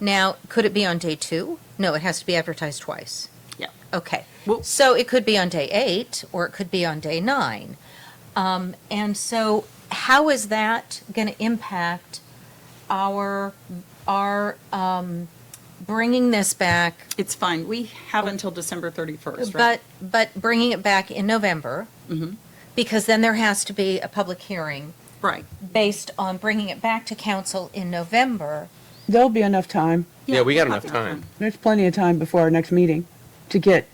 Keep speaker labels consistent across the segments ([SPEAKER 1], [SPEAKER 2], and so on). [SPEAKER 1] Now, could it be on day two? No, it has to be advertised twice.
[SPEAKER 2] Yeah.
[SPEAKER 1] Okay.
[SPEAKER 2] Well-
[SPEAKER 1] So it could be on day eight, or it could be on day nine. Um, And so how is that going to impact our, our um, bringing this back?
[SPEAKER 2] It's fine. We have until December 31st,
[SPEAKER 1] But,
[SPEAKER 2] right? Mm-hmm.
[SPEAKER 1] but bringing it back in November? Because then there has to be a public hearing
[SPEAKER 2] Right.
[SPEAKER 1] based on bringing it back to council in November.
[SPEAKER 3] There'll be enough time.
[SPEAKER 4] Yeah, we got
[SPEAKER 2] we'll
[SPEAKER 4] enough
[SPEAKER 2] have
[SPEAKER 4] time.
[SPEAKER 3] There's plenty of time before our next meeting to get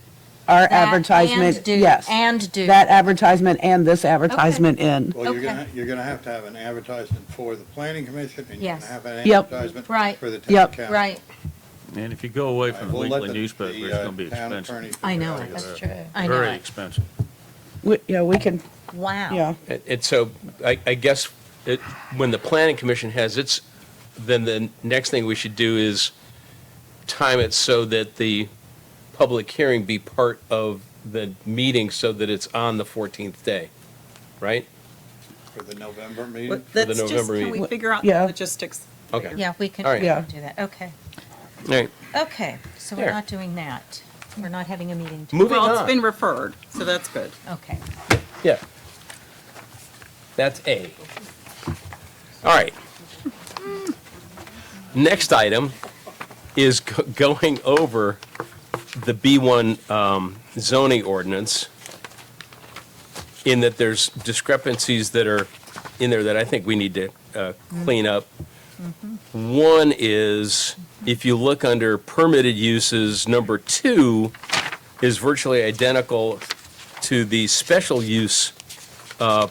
[SPEAKER 3] our
[SPEAKER 1] That
[SPEAKER 3] advertisement.
[SPEAKER 1] and do-
[SPEAKER 3] Yes.
[SPEAKER 1] And do.
[SPEAKER 3] That advertisement and this advertisement in.
[SPEAKER 5] Well, you're
[SPEAKER 1] Okay.
[SPEAKER 5] gonna, you're gonna have to have an advertisement for the planning commission, and you're
[SPEAKER 1] Yes.
[SPEAKER 5] gonna have an
[SPEAKER 3] Yep.
[SPEAKER 5] advertisement
[SPEAKER 1] Right.
[SPEAKER 5] for the town
[SPEAKER 3] Yep.
[SPEAKER 5] council.
[SPEAKER 1] Right.
[SPEAKER 6] And if you go away
[SPEAKER 5] All
[SPEAKER 6] from
[SPEAKER 5] right,
[SPEAKER 6] the
[SPEAKER 5] we'll let
[SPEAKER 6] weekly newspaper,
[SPEAKER 5] the,
[SPEAKER 6] it's
[SPEAKER 5] uh,
[SPEAKER 6] going to be
[SPEAKER 5] town
[SPEAKER 6] expensive.
[SPEAKER 5] attorney figure
[SPEAKER 1] I know
[SPEAKER 5] out
[SPEAKER 1] it.
[SPEAKER 5] what-
[SPEAKER 1] That's true. I know
[SPEAKER 6] Very
[SPEAKER 1] it.
[SPEAKER 6] expensive.
[SPEAKER 3] We- Yeah, we can,
[SPEAKER 1] Wow.
[SPEAKER 3] yeah.
[SPEAKER 4] And and so I, I guess it, when the planning commission has its, then the next thing we should do is time it so that the public hearing be part of the meeting so that it's on the 14th day, right?
[SPEAKER 5] For the November
[SPEAKER 2] But
[SPEAKER 5] meeting,
[SPEAKER 2] Let's just,
[SPEAKER 4] November
[SPEAKER 2] can we
[SPEAKER 4] meeting.
[SPEAKER 2] figure out
[SPEAKER 3] Yeah.
[SPEAKER 2] the logistics?
[SPEAKER 4] Okay.
[SPEAKER 1] Yeah, we can,
[SPEAKER 4] All
[SPEAKER 1] we can
[SPEAKER 4] right.
[SPEAKER 1] do
[SPEAKER 3] Yeah.
[SPEAKER 1] that. Okay.
[SPEAKER 4] All right.
[SPEAKER 1] Okay. So we're
[SPEAKER 4] There.
[SPEAKER 1] not doing that. We're not having a meeting. to-
[SPEAKER 4] Moving
[SPEAKER 2] Well, it's
[SPEAKER 4] on.
[SPEAKER 2] been referred, so that's good.
[SPEAKER 1] Okay.
[SPEAKER 4] Yeah. That's A. All right. Next item is go- going over the B1 um, zoning ordinance in that there's discrepancies that are in there that I think we need to uh, clean up. One is, if you look under permitted uses, number two is virtually identical to the special use uh,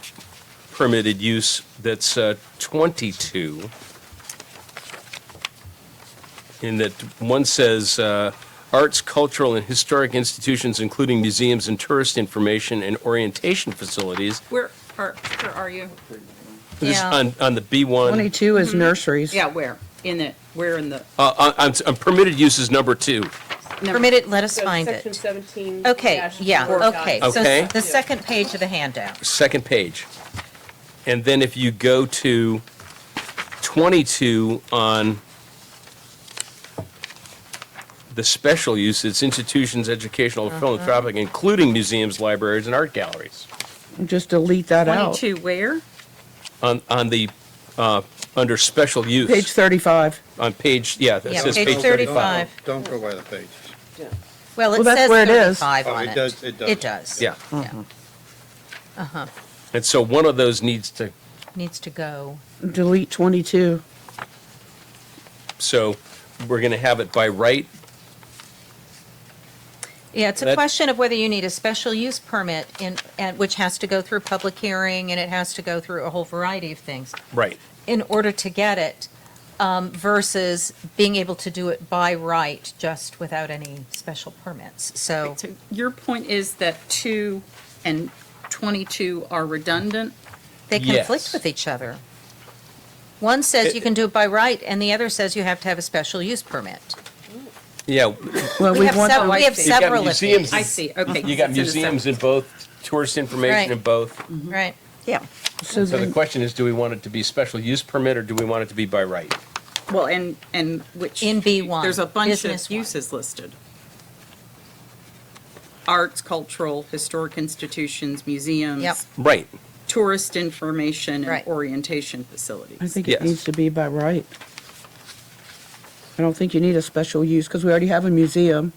[SPEAKER 4] permitted use that's uh, 22. In that one says, uh, "Arts, cultural, and historic institutions, including museums and tourist information and orientation facilities."
[SPEAKER 2] Where are, where are you?
[SPEAKER 4] This is
[SPEAKER 1] Yeah.
[SPEAKER 4] on on the B1,
[SPEAKER 3] 22
[SPEAKER 1] Mm-hmm.
[SPEAKER 3] is nurseries.
[SPEAKER 2] Yeah, where? In it, where in the?
[SPEAKER 4] uh, on- on on permitted uses number two.
[SPEAKER 2] number-
[SPEAKER 1] Permitted, let us
[SPEAKER 7] So
[SPEAKER 1] find
[SPEAKER 7] Section
[SPEAKER 1] it.
[SPEAKER 7] 17.
[SPEAKER 1] Okay,
[SPEAKER 7] dash
[SPEAKER 1] yeah,
[SPEAKER 7] four dot
[SPEAKER 1] okay.
[SPEAKER 7] two.
[SPEAKER 1] So
[SPEAKER 4] Okay.
[SPEAKER 1] s- the second page of the handout.
[SPEAKER 4] second page. And then if you go to 22 on the special use, it's institutions, educational, philanthropic, including museums, libraries, and art galleries.
[SPEAKER 3] Just delete that out.
[SPEAKER 2] 22 where?
[SPEAKER 4] On, on the, uh, under special use.
[SPEAKER 3] Page 35.
[SPEAKER 4] On page, yeah, that
[SPEAKER 1] Yeah,
[SPEAKER 4] says
[SPEAKER 1] page
[SPEAKER 4] page
[SPEAKER 1] 35.
[SPEAKER 4] 35.
[SPEAKER 5] don't go by the pages.
[SPEAKER 1] Well, it
[SPEAKER 3] Well, that's
[SPEAKER 1] says
[SPEAKER 3] where it is. Mm-hmm.
[SPEAKER 1] 35
[SPEAKER 5] Oh,
[SPEAKER 1] on
[SPEAKER 5] it
[SPEAKER 1] it.
[SPEAKER 5] does- it does.
[SPEAKER 1] It does.
[SPEAKER 4] Yeah.
[SPEAKER 1] Yeah. Uh-huh.
[SPEAKER 4] And so one of those needs to,
[SPEAKER 1] Needs to go.
[SPEAKER 3] Delete 22.
[SPEAKER 4] so we're going to have it by right.
[SPEAKER 1] Yeah, it's a
[SPEAKER 4] That-
[SPEAKER 1] question of whether you need a special use permit in, and, which has to go through public hearing and it has to go through a whole variety of things.
[SPEAKER 4] Right.
[SPEAKER 1] in order to get it um, versus being able to do it by right, just without any special permits. So,
[SPEAKER 2] So your point is that 2 and 22 are redundant?
[SPEAKER 1] they conflict
[SPEAKER 4] Yes.
[SPEAKER 1] with each other. One says you can do it by right, and the other says you have to have a special use permit.
[SPEAKER 4] Yeah.
[SPEAKER 3] Well,
[SPEAKER 1] We have
[SPEAKER 3] want
[SPEAKER 1] several, we have
[SPEAKER 2] You've got
[SPEAKER 1] several of
[SPEAKER 4] museums
[SPEAKER 1] these.
[SPEAKER 2] I see, okay.
[SPEAKER 4] You got
[SPEAKER 2] it's in a sec-
[SPEAKER 4] museums in both, tourist
[SPEAKER 1] Right.
[SPEAKER 4] information in both.
[SPEAKER 1] Right,
[SPEAKER 2] Yeah.
[SPEAKER 3] So
[SPEAKER 4] So the
[SPEAKER 3] then-
[SPEAKER 4] question is, do we want it to be special use permit or do we want it to be by right?
[SPEAKER 2] Well, and, and which.
[SPEAKER 1] In B1,
[SPEAKER 2] There's a bunch
[SPEAKER 1] business
[SPEAKER 2] of
[SPEAKER 1] one.
[SPEAKER 2] uses listed. Arts, cultural, historic institutions, museums.
[SPEAKER 1] Yep.
[SPEAKER 4] Right.
[SPEAKER 2] Tourist information
[SPEAKER 1] Right.
[SPEAKER 2] and orientation
[SPEAKER 3] I
[SPEAKER 2] facilities.
[SPEAKER 3] think it
[SPEAKER 4] Yes.
[SPEAKER 3] needs to be by right. I don't think you need a special use because we already have a museum.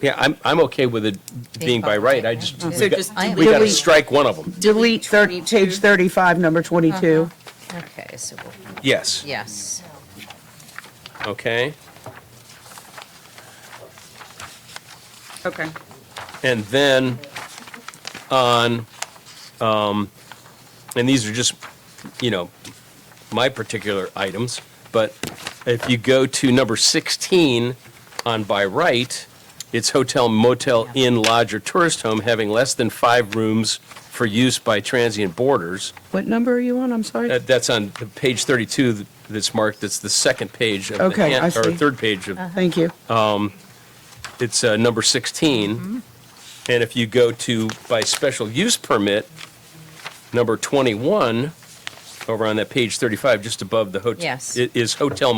[SPEAKER 4] Yeah, I'm, I'm okay with it being by right. I just,
[SPEAKER 1] Mhm.
[SPEAKER 2] So
[SPEAKER 4] we got-
[SPEAKER 2] just
[SPEAKER 1] I am-
[SPEAKER 4] we got to
[SPEAKER 3] delete-
[SPEAKER 4] strike one of them.
[SPEAKER 3] Delete thir-
[SPEAKER 2] 22.
[SPEAKER 3] page 35, number 22.
[SPEAKER 1] Uh-huh. okay, so, we'll-
[SPEAKER 4] Yes.
[SPEAKER 1] yes.
[SPEAKER 4] Okay.
[SPEAKER 2] Okay.
[SPEAKER 4] And then on, um, and these are just, you know, my particular items, but if you go to number 16 on by right, it's hotel, motel, inn, lodge, or tourist home having less than five rooms for use by transient boarders.
[SPEAKER 3] What number are you on? I'm sorry.
[SPEAKER 4] That- That's on the page 32 th- that's marked, that's the second page of the.
[SPEAKER 3] Okay,
[SPEAKER 4] hand-
[SPEAKER 3] I
[SPEAKER 4] Or
[SPEAKER 3] see.
[SPEAKER 4] third page of
[SPEAKER 1] Uh-huh.
[SPEAKER 3] Thank you.
[SPEAKER 4] it's uh, number 16. And if you go to, by special use permit, number 21, over on that page 35, just above the hotel.
[SPEAKER 1] Yes.
[SPEAKER 4] Is hotel